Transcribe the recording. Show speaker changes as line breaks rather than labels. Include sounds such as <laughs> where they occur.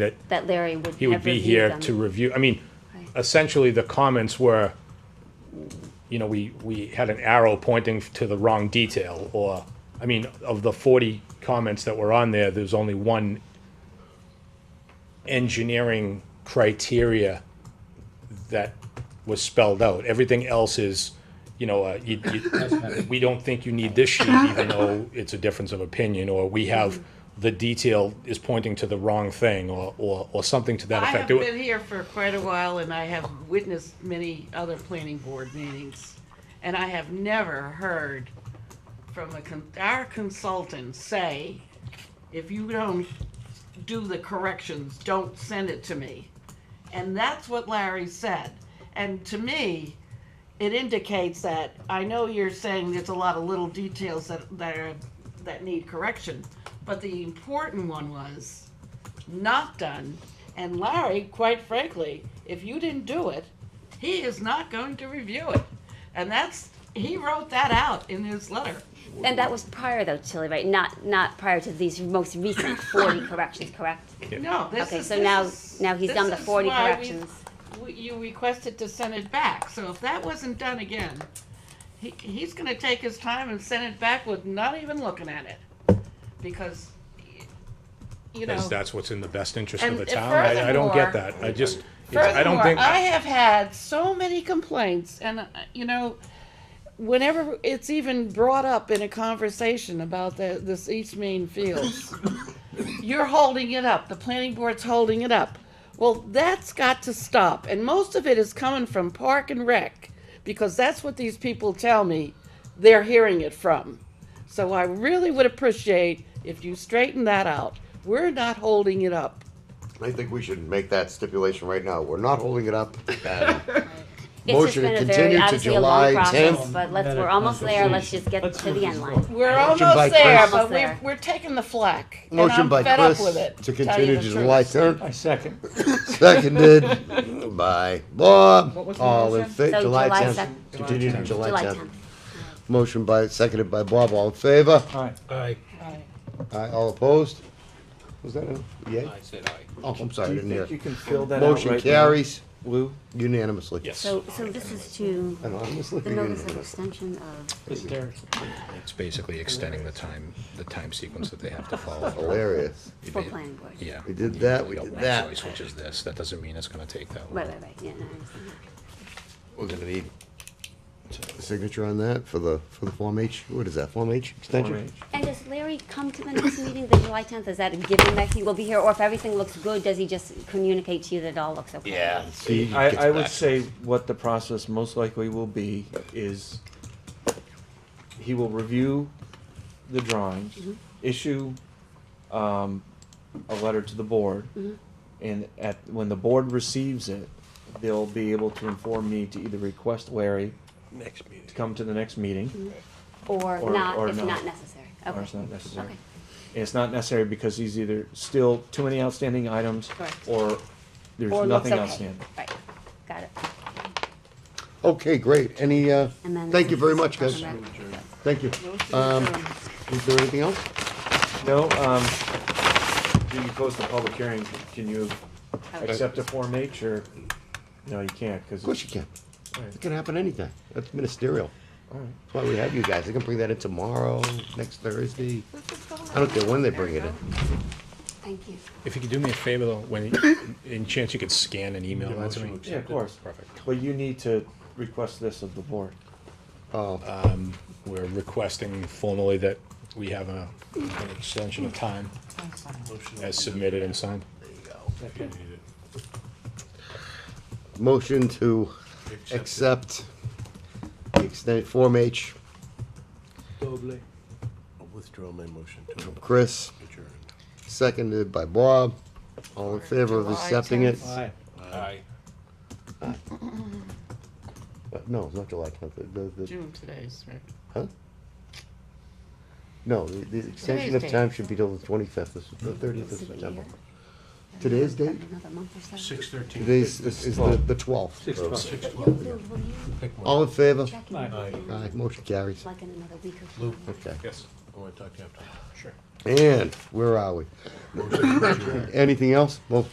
that
that Larry would
he would
have
be
reviewed
here
them.
to review, I mean, essentially, the comments were, you know, we, we had an arrow pointing to the wrong detail, or, I mean, of the forty comments that were on there, there's only one engineering criteria that was spelled out. Everything else is, you know, uh, you, you, we don't think you need this sheet, even though it's a difference of opinion, or we have, the detail is pointing to the wrong thing, or, or, or something to that
I
effect.
have
There were-
been here for quite a while and I have witnessed many other planning board meetings. And I have never heard from a con- our consultant say, if you don't do the corrections, don't send it to me. And that's what Larry said. And to me, it indicates that, I know you're saying there's a lot of little details that, that are, that need correction, but the important one was not done. And Larry, quite frankly, if you didn't do it, he is not going to review it. And that's, he wrote that out in his letter.
And that was prior though, Tilly, right? Not, not prior to these most recent forty corrections, correct?
No, this
Okay,
is.
so
this
now,
is-
now he's
this
done the
is
forty
why we-
corrections.
w- You requested to send it back, so if that wasn't done again, he, he's gonna take his time and send it back with not even looking at it. Because, you know.
Because that's what's in the best interest
And
of the town. I, I don't get that. I just, it's- I don't
Furthermore,
think,
I have had so many complaints, and uh, you know, whenever it's even brought up in a conversation about the, this East
<coughs>
Main Fields, you're holding it up. The planning board's holding it up. Well, that's got to stop, and most of it is coming from Park and Rec, because that's what these people tell me they're hearing it from. So I really would appreciate if you straighten that out. We're not holding it up.
I think we should make that stipulation right now. We're not holding it
<laughs>
up.
It's just
Motion to
been a very,
continue to
obviously a long
July
process,
10th.
but let's, we're almost there, let's just get to the end line.
We're
Motion by
almost there,
Chris.
but
Almost
we're,
there.
we're taking the flack. and
Motion
I'm
by
fed
Chris
up with it,
to
tell you the
continue to
truth.
July 10th.
I second.
<laughs>
Seconded by Bob. All in
So
favor, July
July
10th.
sec-
Continue to
July
July 10th.
tenth.
Motion by, seconded by Bob. All in favor?
All right.
Aye. All opposed? Was that a yay?
I said aye.
Oh, I'm
Do
sorry, I
you
didn't
think you
hear.
can fill that out
Motion
right
carries
now, Lou?
unanimously.
yes,
So, so this is to
Anonymously.
the notice of
unanimously.
extension of,
It's basically extending the time, the time sequence that they have to
<laughs>
follow.
<laughs> Hilarious.
You
for
did-
planning board.
Yeah.
We did that,
You
we
got
did
one
that.
choice, Which is this, that doesn't mean it's gonna take that
Right,
long.
right, right, yeah, no, I understand.
We're gonna need a signature on that for the, for the Form H. What is that, Form H
Form
extension?
H.
And does Larry come to the next meeting, the July tenth, is that a given that he will be here, or if everything looks good, does he just communicate to you that it all looks okay?
Yeah. See,
I,
gets
I would
back.
say what the process most likely will be is he will review the drawings, issue, um, a letter to the board. And at, when the board receives it, they'll be able to inform me to either request Larry
Next meeting.
to come to the next meeting,
Or
Or-
not,
or
if
not.
not necessary, okay.
or it's not necessary.
Okay.
And it's not necessary because he's either still too many outstanding items,
Correct.
or there's
Or looks
nothing
okay,
outstanding.
right, got it.
Okay, great. Any, uh,
And then
thank you very
this
much,
is
guys.
Park and Rec.
Thank you. Um, is there anything else?
No, um, do you post a public hearing, can you accept a Form H or, no, you can't, cause.
Of course you can.
Alright.
It can happen anytime. That's ministerial.
Alright.
That's why we have you guys. They can bring that in tomorrow, next Thursday. I don't care when they bring it in.
Thank you.
if you could do me a favor though, when, in chance you could scan and email that to me.
Yeah, of course.
Perfect.
But you need to request this of the board.
Oh,
We're requesting formally that we have a, an extension of time as submitted and signed.
motion to accept the extent, Form H
I'll withdraw my motion to
from Chris,
adjourn.
seconded by Bob. All in favor of accepting it?
Aye.
Aye.
Uh, No, it's not July tenth. The, the- the,
June today's, right?
huh? No, the, the extension
Today's
of
date.
time should be till the twenty-fifth, this is the thirtieth of
This is a
September.
year.
Today's date?
Another month or so.
Six thirteen.
Today's is is the, the twelfth.
Six
Lou,
twelve.
will you
Pick one.
All in favor?
check in with
Aye,
him,
motion carries.
like in another week or
Lou.
so?
Okay.
Yes.
I want to talk to you after.
Sure.
And where are we?
Motion to adjourn.
Anything else? Well,